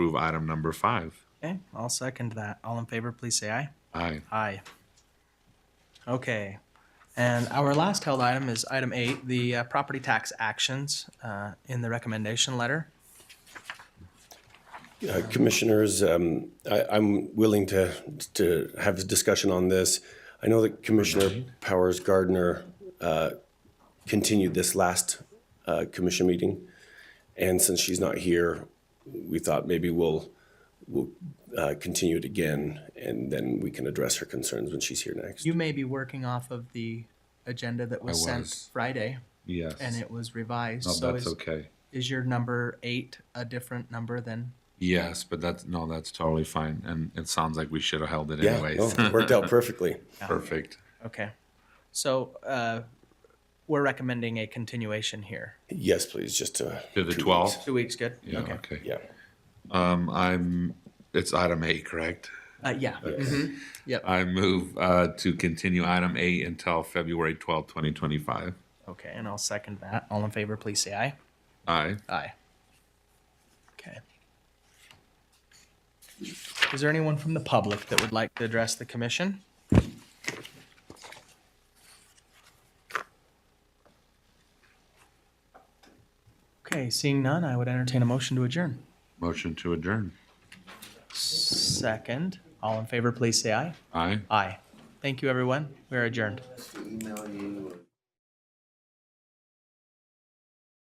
approve item number five. Okay, I'll second that. All in favor, please say aye. Aye. Aye. Okay, and our last held item is item eight, the uh, property tax actions uh, in the recommendation letter. Uh, Commissioners, um, I, I'm willing to, to have a discussion on this. I know that Commissioner Powers Gardner, uh, continued this last, uh, commission meeting. And since she's not here, we thought maybe we'll, we'll, uh, continue it again and then we can address her concerns when she's here next. You may be working off of the agenda that was I sent was. Friday, Yes. and it was revised. No, So that's is, okay. is your number eight a different number than? Yes, but that's, no, that's totally fine. And it sounds like we should have held it Yeah, anyways. no, worked out perfectly. Perfect. Okay, so uh, we're recommending a continuation here. Yes, please, just to. To the 12th? Two weeks, good? Yeah, Okay. okay. Yeah. Um, I'm, it's item eight, correct? Uh, Yeah, Mhm. yep, I move, uh, to continue item eight until February twelfth, twenty twenty-five. okay, and I'll second that. All in favor, please say aye. Aye. Aye. Okay. Is there anyone from the public that would like to address the commission? Okay, seeing none, I would entertain a motion to adjourn. Motion to adjourn. Second, all in favor, please say aye. Aye. Aye. Thank you, everyone. We are adjourned.